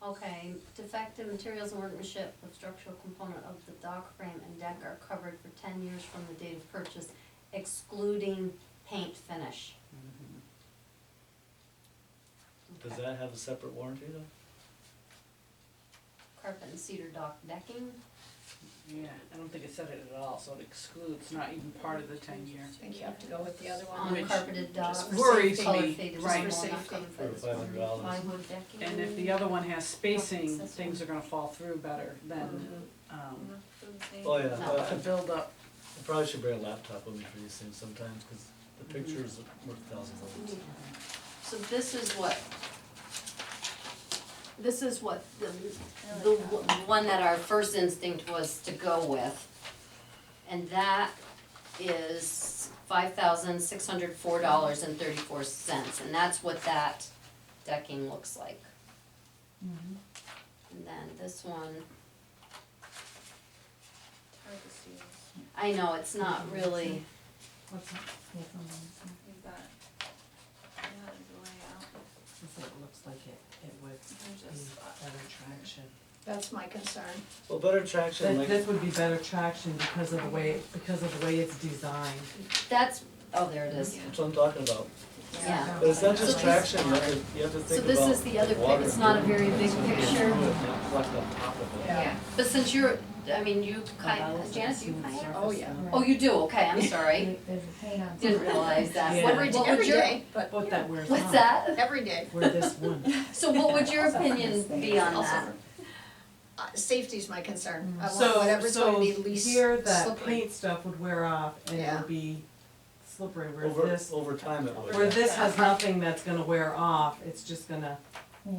Okay, defective materials and workmanship of structural component of the dock frame and deck are covered for ten years from the date of purchase, excluding paint finish. Does Okay. that have a separate warranty though? Carpet and cedar dock decking, Yeah, I don't think it said it at all, so it excludes, not even part of the ten year. I think you have to go with the other one, on Which carpeted docks, just worries color me, faded vinyl, right. For not safety. covered by For this $500. warranty. plywood decking. And if Mm. the other one has spacing, things are gonna fall through better than, Mm. um, Oh, yeah, No. Uh, well, the I buildup. I probably should bring a laptop with me for these things sometimes, cause the Mm-hmm. pictures are worth thousands of words. Mm. So this is what, this is what the, the uh, w- one that our first instinct was to go with. And that is five thousand six hundred four dollars and thirty-four cents, and that's what that decking looks like. Mm-hmm. And then this one, Hard to see. I know, it's not really, What's that? Yeah, it's on the inside. You've got, yeah, there's a layout. It's like, it looks like it, it would There's be a spot. better traction. That's my concern. Well, better traction, That, like, this would be better traction because of the way, because of the way it's designed. that's, oh, there it is. that's what I'm talking about. Yeah. But it's not just Oh, So this- traction, you have to, you have to So think about this is the other, pic- water. it's not a very big picture. Reflect on top of it. Yeah. But since you're, I mean, you Oh, kind, About Janice, you the kind of, Oh, yeah. oh, you do, okay, I'm sorry, They- There's a paint on. didn't realize that. Yeah. What Every, would- what would every your- day, but What that wears on. What's that? every day. Where this one. So what would your opinion be on Also, that? Uh, safety's my concern. I want So, whatever's so going to be least here that slippery. paint stuff would wear off and it Yeah. would be slippery, where Over, this, over time it would. where this has nothing that's gonna wear off, it's just gonna, Yeah.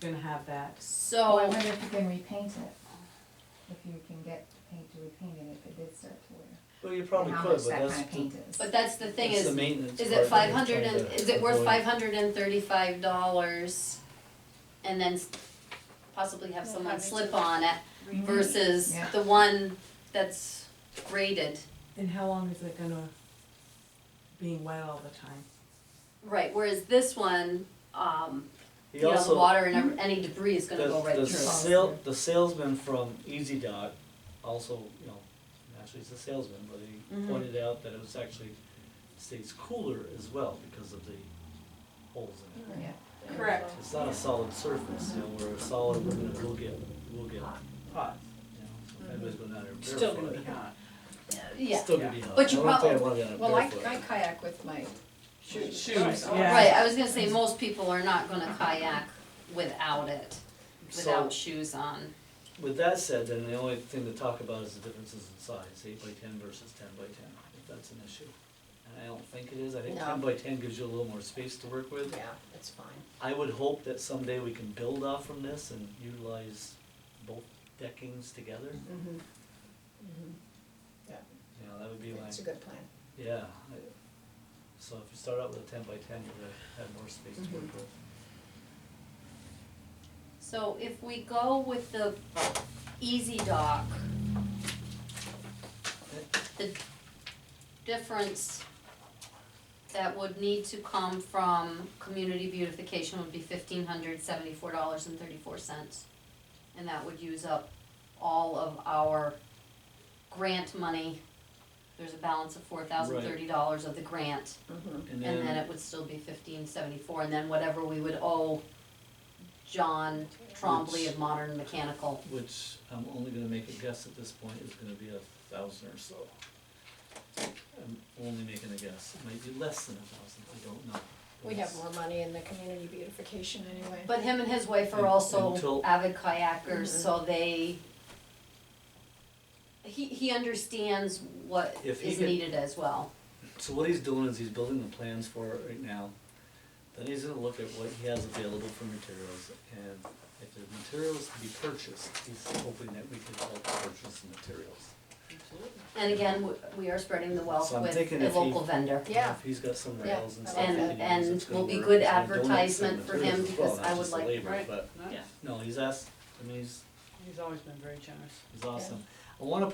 gonna have that. Oh, So, I wonder if you can repaint it, if you can get paint to repaint it if it did start to wear. Well, you probably How could, much but that that's, kind of paint is. but that's the thing that's is, the is maintenance part it that we're five hundred trying and, to is it worth avoid. five hundred and thirty-five dollars? And then s- possibly have Well, someone having slip to- on it versus Mm-hmm. Yeah. the one that's graded. And how long is it gonna, being wet all the time? Right, whereas this one, um, He you know, the also- water and ev- any debris is gonna The- go right through. The sale, the salesman from Easy Dot also, you know, actually he's a salesman, but he Mhm. pointed out that it was actually stays cooler as well because of the holes in it. Yeah. Correct. It's not a solid surface, you know, where a solid, we're gonna, we'll get, we'll get hot, you know, so if anybody's going down there It's barefoot. Still gonna be hot. Yeah, Still gonna be hot. But you I don't think I probably- wanna get Well, I, out I barefoot. kayak with my shoes. Shoes, so- yeah. right, I was gonna say, most people are not gonna kayak without it, So, without shoes on. with that said, then the only thing to talk about is the differences in size, eight by ten versus ten by ten, if that's an issue. And I don't think it is, I think No. ten by ten gives you a little more space to work with. Yeah, it's fine. I would hope that someday we can build off from this and utilize both deckings together. Mm-hmm. You know, that would be my, It's a good plan. yeah. I- So if you start out with a ten by ten, you're gonna have more space to work with. So if we go with the Easy Dock, the difference that would need to come from community beautification would be fifteen hundred seventy-four dollars and thirty-four cents. And that would use up all of our grant money. There's a balance of four thousand thirty dollars of the grant, Mm-hmm. And and then then, it would still be fifteen seventy-four, and then whatever we would owe John Trombley of Modern Mechanical. which I'm only gonna make a guess at this point, is gonna be a thousand or so. I'm only making a guess, it might be less than a thousand, I don't know. We have more money in the community beautification anyway. But him and his wife are Un- also until- avid kayakers, so they, he, he understands what If he is could- needed as well. So what he's doing is he's building the plans for it right now. Then he's gonna look at what he has available for materials and if there's materials to be purchased, he's hoping that we can help purchase the materials. And again, w- we are spreading the wealth So I'm with thinking a if he- local vendor. Yeah. If he's got some Yeah, rails and I stuff like that And, he uses, and it's will gonna be work. good He's gonna donate some advertisement for him materials as well, because not I would just the like, labor, Right. but- Nice. No, he's asked, I mean, he's, He's always been very generous. he's awesome. I wanna